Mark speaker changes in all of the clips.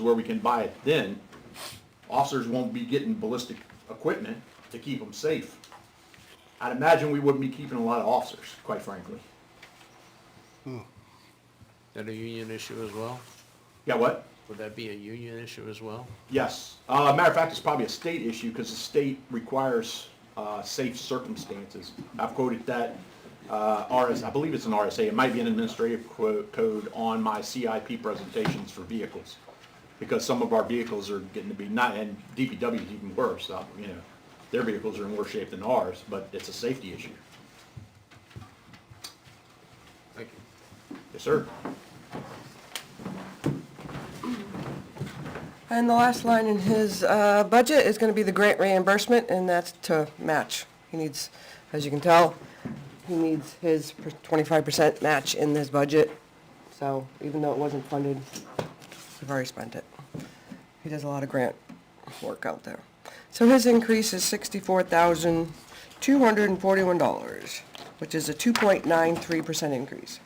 Speaker 1: where we can buy it then, officers won't be getting ballistic equipment to keep them safe. I'd imagine we wouldn't be keeping a lot of officers, quite frankly.
Speaker 2: That a union issue as well?
Speaker 1: Yeah, what?
Speaker 2: Would that be a union issue as well?
Speaker 1: Yes. Uh, matter of fact, it's probably a state issue because the state requires uh, safe circumstances. I've quoted that uh, RS, I believe it's an RSA. It might be an administrative quo- code on my CIP presentations for vehicles because some of our vehicles are getting to be not, and DPW is even worse. Uh, you know, their vehicles are in worse shape than ours, but it's a safety issue.
Speaker 2: Thank you.
Speaker 1: Yes, sir.
Speaker 3: And the last line in his uh, budget is going to be the grant reimbursement, and that's to match. He needs, as you can tell, he needs his per- 25% match in this budget. So even though it wasn't funded, we've already spent it. He does a lot of grant work out there. So his increase is $64,241, which is a 2.93% increase.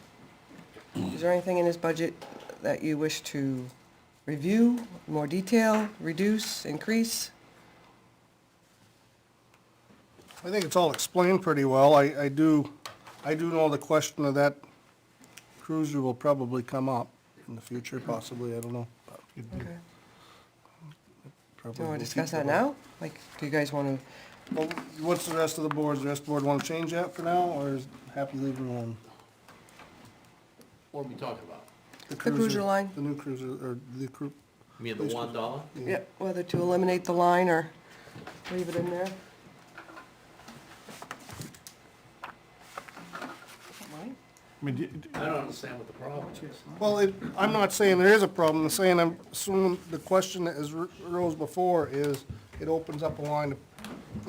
Speaker 3: Is there anything in his budget that you wish to review, more detail, reduce, increase?
Speaker 4: I think it's all explained pretty well. I, I do, I do know the question of that cruiser will probably come up in the future,
Speaker 3: Hmm.
Speaker 4: possibly, I don't know.
Speaker 3: Okay. Do
Speaker 4: Probably
Speaker 3: you
Speaker 4: will
Speaker 3: want to discuss
Speaker 4: keep
Speaker 3: that
Speaker 4: it.
Speaker 3: now? Like, do you guys want
Speaker 4: Well, What's the rest of the boards? The rest of the board want to change that for now, or is happy leaving alone?
Speaker 2: What are we talking about?
Speaker 3: cruiser line.
Speaker 4: The new cruiser, or the cru,
Speaker 2: You mean the one dollar?
Speaker 3: to, yeah, whether to eliminate the line or leave it in there? Mine?
Speaker 5: I mean, do-
Speaker 2: I don't understand what the problem is.
Speaker 4: well, it, I'm not saying there is a problem, I'm saying I'm assuming the question that is r- rose before is, it opens up a line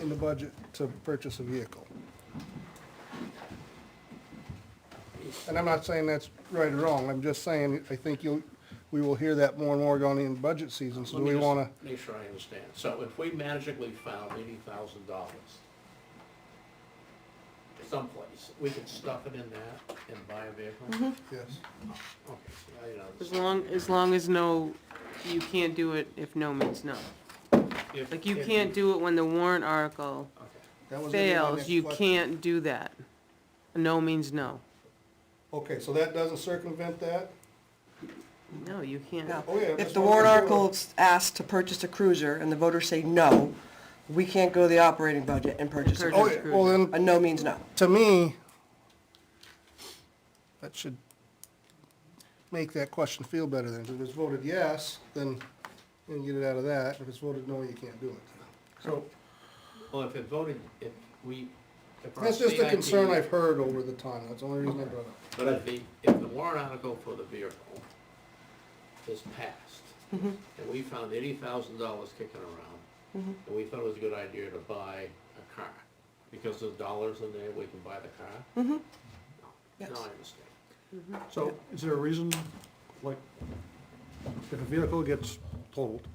Speaker 4: in the budget to purchase a vehicle. And I'm not saying that's right or wrong, I'm just saying, I think you'll, we will hear that more and more going in budget season, so
Speaker 2: Let
Speaker 4: do
Speaker 2: me
Speaker 4: we
Speaker 2: just
Speaker 4: wanna,
Speaker 2: Make sure I understand. So if we magically found eighty thousand dollars someplace, we could stuff it in that and buy a vehicle?
Speaker 6: Mm-hmm.
Speaker 2: Okay,
Speaker 4: yes.
Speaker 2: see, I didn't
Speaker 6: As
Speaker 2: understand.
Speaker 6: long, as long as no, you can't do it if no means no.
Speaker 2: If-
Speaker 6: Like, you
Speaker 2: if
Speaker 6: can't do it when the warrant article
Speaker 2: Okay,
Speaker 4: That was gonna be my
Speaker 6: fails,
Speaker 4: next
Speaker 6: you
Speaker 4: question.
Speaker 6: can't do that. No means no.
Speaker 4: Okay, so that doesn't circumvent that?
Speaker 6: No, you can't.
Speaker 3: No.
Speaker 4: Oh, yeah,
Speaker 3: If
Speaker 4: that's
Speaker 3: the
Speaker 4: what
Speaker 3: warrant
Speaker 4: we're doing.
Speaker 3: article's asked to purchase a cruiser and the voters say no, we can't go to the operating budget and purchase a
Speaker 6: Purchase.
Speaker 4: Oh,
Speaker 3: cruiser.
Speaker 4: yeah, well, then,
Speaker 3: A no means no.
Speaker 4: to me, that should make that question feel better then. If it's voted yes, then you can get it out of that. If it's voted no, you can't do it.
Speaker 2: so, well, if it voted, if we, if our
Speaker 4: That's just a
Speaker 2: CIP
Speaker 4: concern I've heard over the time. That's the only reason I brought it up.
Speaker 2: But if the, if the warrant article for the vehicle is passed, and we found eighty thousand dollars kicking around, and we thought it was a good idea to buy a car, because there's dollars in there, we can buy the car? No,
Speaker 3: Yes.
Speaker 2: Now I understand.
Speaker 5: so is there a reason, like, if a vehicle gets totaled,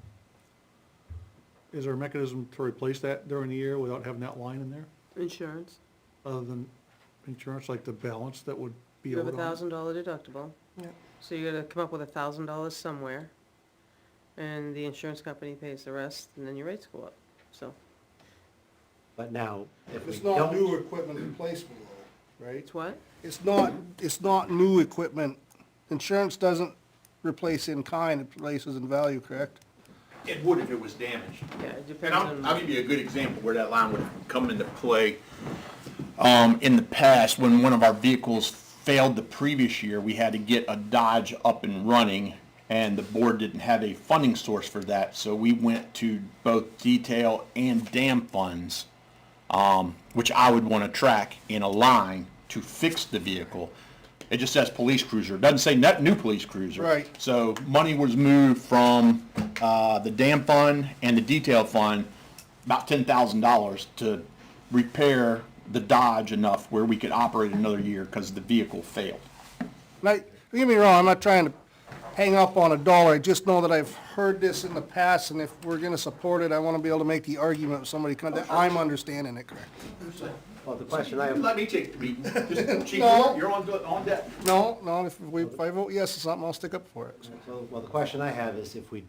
Speaker 5: is there a mechanism to replace that during the year without having that line in there?
Speaker 6: Insurance,
Speaker 5: Other than insurance, like the balance that would be
Speaker 6: you have
Speaker 5: owed
Speaker 6: a
Speaker 5: on? it?
Speaker 6: thousand dollar deductible,
Speaker 3: Yeah.
Speaker 6: so you gotta come up with a thousand dollars somewhere. And the insurance company pays the rest, and then your rates go up, so
Speaker 7: But now, if we
Speaker 4: It's not new
Speaker 7: don't,
Speaker 4: equipment replacement though, right?
Speaker 6: it's what?
Speaker 4: It's not, it's not new equipment. Insurance doesn't replace in kind, it replaces in value, correct?
Speaker 1: It would if it was damaged.
Speaker 6: Yeah, it
Speaker 1: And
Speaker 6: depends on.
Speaker 1: I'll, I'll give you a good example where that line would come into play. Um, in the past, when one of our vehicles failed the previous year, we had to get a Dodge up and running, and the board didn't have a funding source for that, so we went to both detail and dam funds, um, which I would wanna track in a line to fix the vehicle. It just says police cruiser, It doesn't say net new police cruiser.
Speaker 4: Right.
Speaker 1: So money was moved from, uh, the dam fund and the detail fund, about ten thousand dollars to repair the Dodge enough where we could operate another year because the vehicle failed.
Speaker 4: Now, don't get me wrong, I'm not trying to hang up on a dollar, I just know that I've heard this in the past, and if we're gonna support it, I wanna be able to make the argument with somebody, kind of- that I'm understanding it correct.
Speaker 7: well, the question I have,
Speaker 1: Let me take the beat. Just, Chief,
Speaker 4: No.
Speaker 1: you're on, on deck.
Speaker 4: No, no, if we, if I vote yes to something, I'll stick up for it, so.
Speaker 7: well, the question I have is if we